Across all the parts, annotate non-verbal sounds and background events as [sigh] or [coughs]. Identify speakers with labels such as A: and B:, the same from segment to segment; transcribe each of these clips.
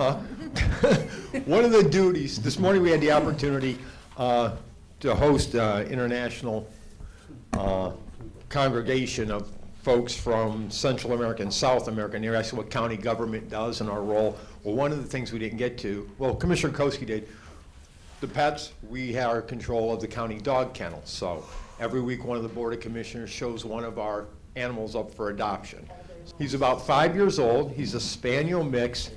A: Uh, [laughs] One of the duties, this morning we had the opportunity uh, to host uh, international uh, congregation of folks from Central America and South America, and they asked what county government does and our role. Well, one of the things we didn't get to, well, Commissioner Koski did, the pets, we have control of the county dog kennel, so every week, one of the Board of Commissioners shows one of our animals up for adoption. He's about five years old, he's a spaniel mix,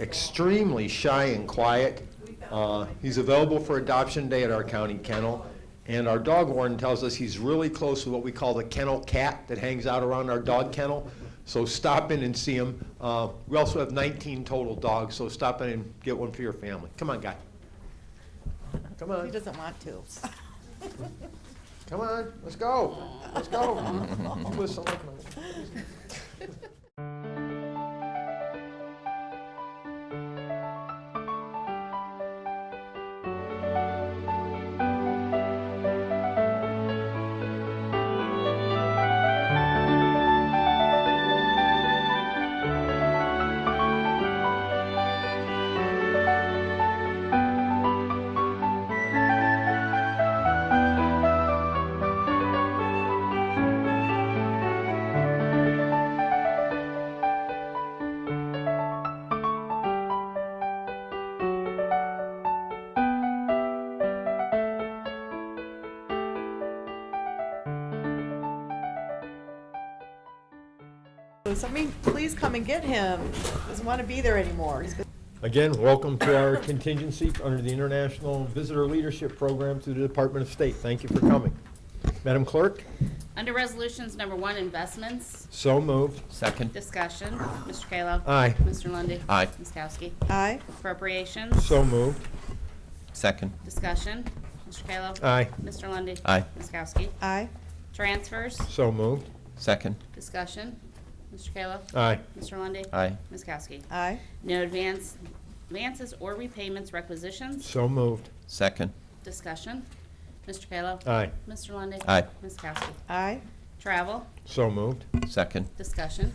A: extremely shy and quiet. Uh, He's available for adoption day at our county kennel, and our dog warden tells us he's really close to what we call the kennel cat that hangs out around our dog kennel, so stop in and see him. Uh, We also have 19 total dogs, so stop in and get one for your family. Come on, guy. Come
B: He
A: on,
B: doesn't want to.
A: come on, let's go, let's go. Listen, look, man.
B: So Somebody please come and get him. He Doesn't want to be there anymore. He's been-
A: Again, welcome to our contingency under the International Visitor Leadership Program through the Department of State. Thank you for coming. Madam Clerk,
C: Under Resolutions Number One, Investments,
A: so moved.
D: Second.
C: Discussion, Mr. Kayla.
A: Aye.
C: Mr. Lundy.
D: Aye.
C: Ms. Kowski.
B: Aye,
C: Appropriations,
A: So moved.
D: Second.
C: Discussion, Mr. Kayla.
A: Aye.
C: Mr. Lundy.
D: Aye.
C: Ms. Kowski.
B: aye,
C: Transfers,
A: So moved.
D: Second.
C: Discussion, Mr. Kayla.
A: Aye.
C: Mr. Lundy.
D: Aye.
C: Ms. Kowski.
B: aye,
C: No advance, advances or repayments requisitions,
A: So moved.
D: Second.
C: Discussion, Mr. Kayla.
A: Aye.
C: Mr. Lundy.
D: Aye.
C: Ms. Kowski.
B: aye,
C: Travel,
A: So moved.
D: Second.
C: Discussion,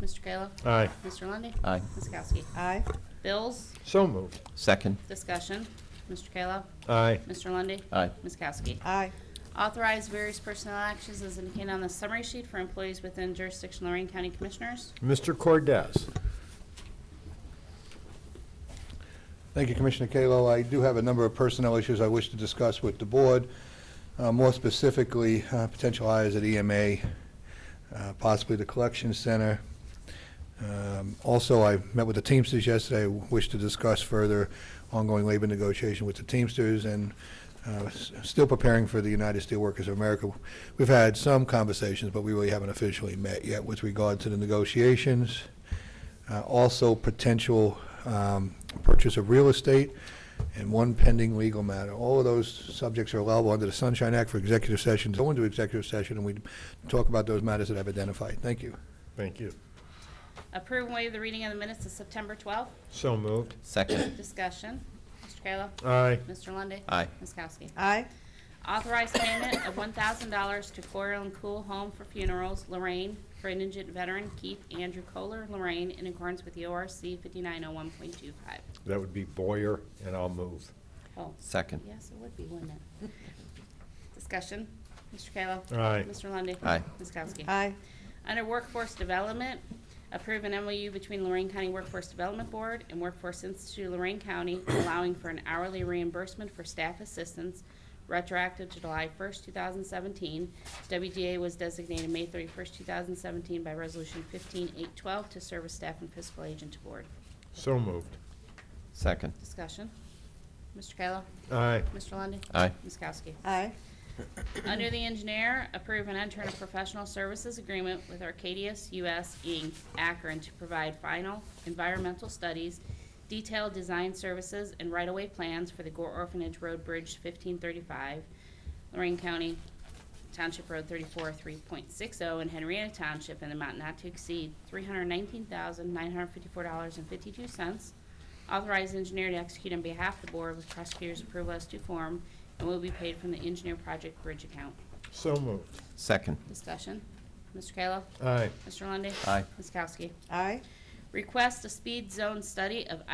C: Mr. Kayla.
A: Aye.
C: Mr. Lundy.
D: Aye.
C: Ms. Kowski.
B: aye,
C: Bills,
A: So moved.
D: Second.
C: Discussion, Mr. Kayla.
A: Aye.
C: Mr. Lundy,
D: Aye.
C: Ms. Kowski.
B: aye,
C: Authorize various personnel actions as indicated on the summary sheet for employees within jurisdiction Lorraine County Commissioners.
A: Mr. Cordez.
E: Thank you, Commissioner Kalo. I do have a number of personnel issues I wish to discuss with the board, Uh, more specifically, uh, potential hires at EMA, uh, possibly the collection center. Um, Also, I met with the Teamsters yesterday, I wish to discuss further ongoing labor negotiation with the Teamsters and uh, s- still preparing for the United Steelworkers of America. We've had some conversations, but we really haven't officially met yet with regard to the negotiations. Uh, Also, potential um, purchase of real estate, and one pending legal matter. All of those subjects are allowable under the Sunshine Act for executive sessions. Go into executive session, and we talk about those matters that I've identified. Thank you.
A: Thank you.
C: Approve and waive the reading of the minutes of September 12th.
A: So moved.
D: Second.
C: Discussion, Mr. Kayla.
A: Uh. Aye.
C: Mr. Lundy,
D: Aye.
C: Ms. Kowski.
B: aye,
C: Authorize payment of $1,000 to Coral and Cool Home for Funerals, Lorraine, for indigent veteran Keith Andrew Kohler, Lorraine, in accordance with E the ORC 5901.25.
A: That would be Boyer, and I'll move.
C: Oh,
D: Second.
C: Yes, it would be, wouldn't it? [laughs] Discussion, Mr. Kayla.
A: Aye.
C: Mr. Lundy,
D: Aye.
C: Ms. Kowski.
B: aye,
C: Under Workforce Development, approve an MOU between Lorraine County Workforce Development Board and Workforce Institute of Lorraine County [coughs] allowing for an hourly reimbursement for staff assistance retroactive to July 1st, 2017. WDA was designated May 31st, 2017 by Resolution 15812 to serve as staff and fiscal agent to board.
A: So moved.
D: Second.
C: Discussion. Mr. Kayla.
A: Aye.
C: Mr. Lundy,
D: Aye.
C: Ms. Kowski.
B: aye,
C: Under the engineer, approve and enter a professional services agreement with Arcadius US Inc., Akron, to provide final environmental studies, detailed design services, and right-of-way plans for the Gore Orphanage Road Bridge 1535, Lorraine County Township Road 34, 3.60, and oh Henrietta Township, in an amount not to exceed $319,954.52. Authorized engineer to execute on behalf of the board with prosecutor's approval as to form and will be paid from the engineer project bridge account.
A: So moved.
D: Second.
C: Discussion. Mr. Kayla.
A: Aye.
C: Mr. Lundey.
D: Aye.
C: Ms. Kowski.
B: aye.
C: Request a speed zone study of